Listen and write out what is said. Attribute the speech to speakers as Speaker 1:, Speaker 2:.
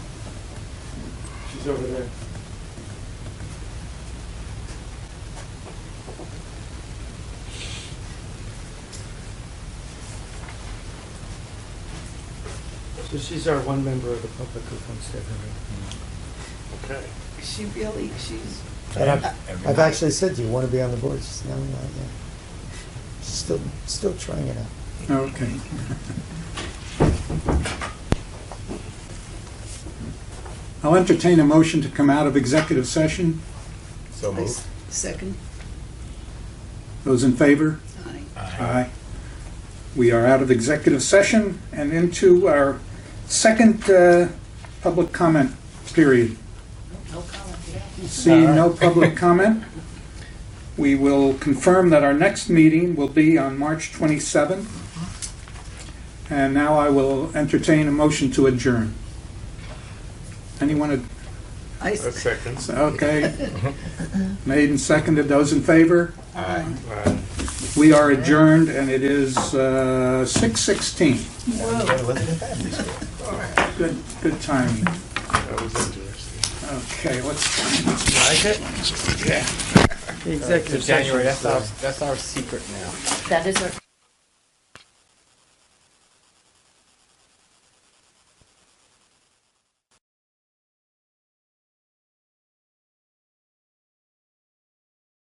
Speaker 1: She's over there. So she's our one member of the public who comes to every meeting.
Speaker 2: Okay.
Speaker 3: She really, she's,
Speaker 4: And I've,
Speaker 5: Every
Speaker 4: I've
Speaker 5: night.
Speaker 4: actually said, do you want to be on the board? She said, no, not yet. Still, still trying it out.
Speaker 6: Okay. I'll entertain a motion to come out of executive session.
Speaker 5: So
Speaker 3: I
Speaker 5: moved.
Speaker 3: s- second,
Speaker 6: Those in favor?
Speaker 3: aye.
Speaker 6: Aye. We are out of executive session and into our second uh, public comment period.
Speaker 3: No comment, yeah.
Speaker 6: Seeing no public comment, we will confirm that our next meeting will be on March 27th. And now I will entertain a motion to adjourn. Anyone, ad-
Speaker 3: I
Speaker 2: A
Speaker 3: s-
Speaker 2: second.
Speaker 6: okay. Made and seconded, those in favor?
Speaker 5: Aye.
Speaker 2: Uh,
Speaker 6: We are adjourned and it is uh, 6:16.
Speaker 3: Whoa.
Speaker 5: Everybody wasn't in family school.
Speaker 6: Good, good timing.
Speaker 2: that was interesting.
Speaker 6: Okay, let's,
Speaker 2: Like it?
Speaker 1: The executive
Speaker 5: So January,
Speaker 1: session.
Speaker 5: that's our, that's our secret now.
Speaker 7: That is our